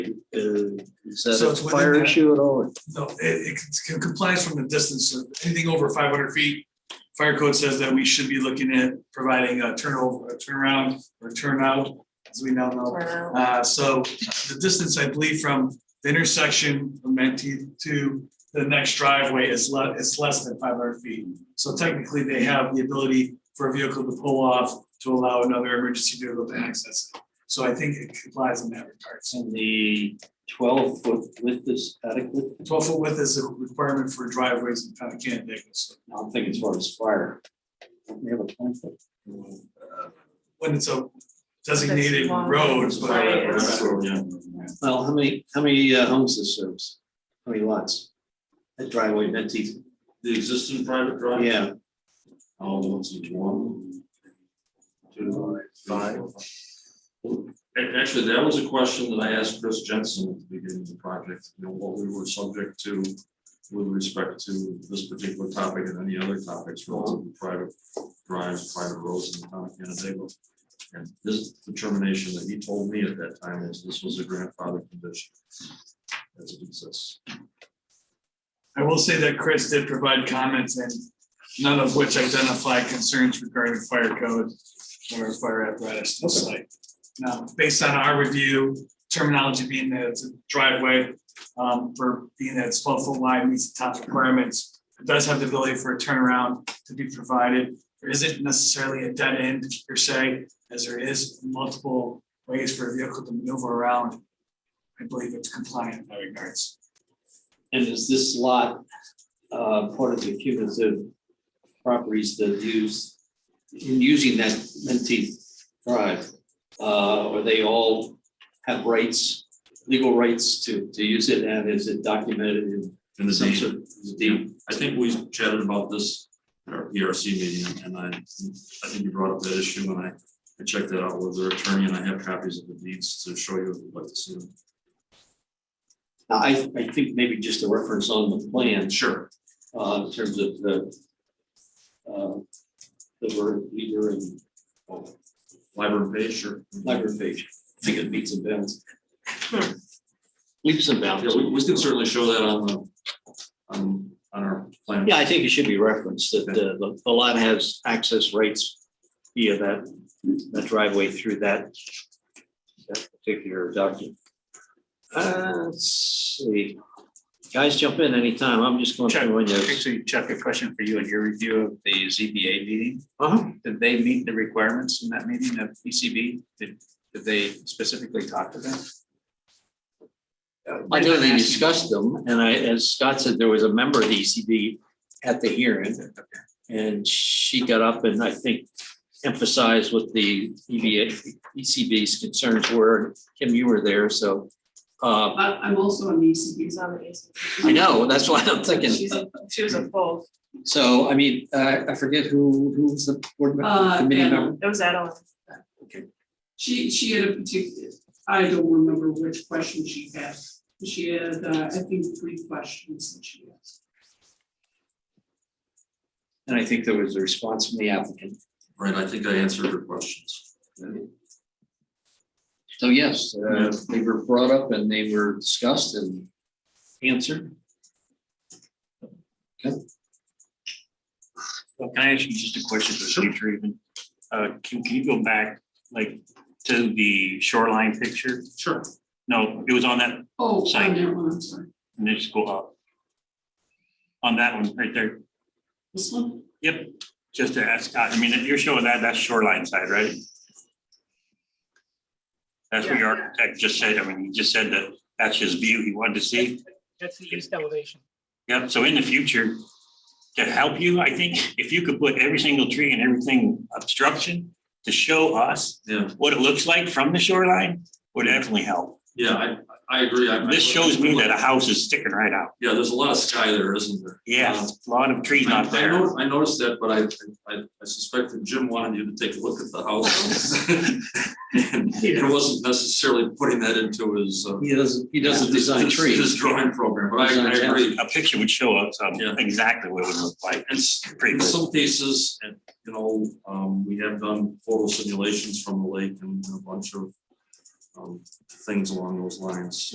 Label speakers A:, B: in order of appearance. A: Is that
B: So
A: a
B: it's within
A: fire
B: that-
A: issue at all?
B: No, it, it complies from the distance of anything over five hundred feet. Fire code says that we should be looking at providing a turnover, a turnaround or turnout, as we now know.
C: Turnout.
B: Uh, so the distance, I believe, from the intersection of Mentee to the next driveway is le- is less than five hundred feet. So technically, they have the ability for a vehicle to pull off to allow another emergency vehicle to access it. So I think it complies in that regard. So
A: And the twelve foot width is adequate?
B: Twelve foot width is a requirement for driveways in town of Canada. so,
A: I'm thinking as far as fire. Don't We have a twenty foot.
B: uh, When it's a designated
C: long.
B: road, but.
C: Right,
B: uh,
A: Well, how many, how many uh, homes this serves? How many lots? That driveway, that teeth,
D: The existing private drive?
A: yeah,
D: All ones into one. Two, five. A- Actually, that was a question that I asked Chris Jensen at the beginning of the project, you know, what we were subject to with respect to this particular topic and any other topics relative to private drives, private roads in the town of Canandaigua. And his determination that he told me at that time is this was a grandfather condition. As it exists.
B: I will say that Chris did provide comments and none of which identify concerns regarding fire code or fire apparatus to the site. Now, based on our review, terminology being that it's a driveway, um, for being that it's twelve foot wide meets the top requirements. It does have the ability for a turnaround to be provided. There isn't necessarily a dead end per se, as there is multiple ways for a vehicle to maneuver around. I believe it's compliant in that regards.
A: and is this lot, uh, part of the cumulative properties that use, in using that Mentee drive? Uh, or they all have rights, legal rights to, to use it, and is it documented in
D: And the
A: some
D: deed-
A: sort?
D: the deed- I think we chatted about this at our PRC meeting, and I, I think you brought up that issue, and I, I checked that out with their attorney, and I have copies of the deeds to show you if you'd like to see them.
A: Now, I, I think maybe just a reference on the plan,
D: Sure.
A: uh, in terms of the, uh, the word leader and oh,
D: Library page, sure.
A: library page. I think it meets and bounds. Leaps and bounds.
D: Yeah, we, we can certainly show that on the, on, on our plan.
A: Yeah, I think it should be referenced that uh, the, the lot has access rights via that, that driveway through that, that particular document. Uh, let's see. Guys, jump in anytime. I'm just going through windows.
E: Actually, Chuck, a question for you in your review of the ZBA meeting.
A: Uh-huh.
E: Did they meet the requirements in that meeting of PCB? Did, did they specifically talk to them?
A: I know they discussed them, and I, as Scott said, there was a member of the ECB at the hearing. And she got up and I think emphasized what the E EBA, ECB's concerns were. Kim, you were there, so. Uh,
F: I, I'm also an ECB.
C: She's on the AC.
A: I know, that's why I'm thinking,
C: She's, a- she was a full,
A: so, I mean, uh, I forget who, who was the board member,
F: Uh,
A: committee
F: Anna.
A: member?
C: it was Adeline.
A: Okay,
F: She, she had a particular, I don't remember which question she had. She had, uh, I think, three questions that she asked.
A: and I think there was a response from the applicant.
D: Right, I think I answered your questions.
A: So yes, uh, they were brought up and they were discussed and answered.
G: Can I ask you just a question for the future even? Uh, can, can you go back, like, to the shoreline picture?
D: Sure.
G: No, it was on that,
F: Oh, on
G: Same.
F: that one, I'm sorry.
G: and then just go up. On that one, right there,
F: This one?
G: yep, just to ask, I mean, if you're showing that, that's shoreline side, right? That's what your architect just said, I mean, he just said that that's his view he wanted to see.
H: That's the east elevation.
G: Yep, so in the future, to help you, I think, if you could put every single tree and everything obstruction to show us
D: Yeah,
G: what it looks like from the shoreline would definitely help.
D: yeah, I, I agree. I-
G: This shows me that a house is sticking right out.
D: Yeah, there's a lot of sky there, isn't there?
G: Yeah, a lot of trees
D: I-
G: not
D: I
G: there.
D: know, I noticed that, but I, I, I suspect that Jim wanted you to take a look at the house. And It wasn't necessarily putting that into his. uh,
A: He doesn't, he doesn't
D: his-
A: design
D: his-
A: trees.
D: His drawing program, but I, I
A: Design
D: agree.
G: A picture would show us um,
D: Yeah.
G: exactly what it would look like.
D: And s-
G: Pretty
D: in
G: cool.
D: some cases, and, you know, um, we have done photo simulations from the lake and a bunch of um, things along those lines.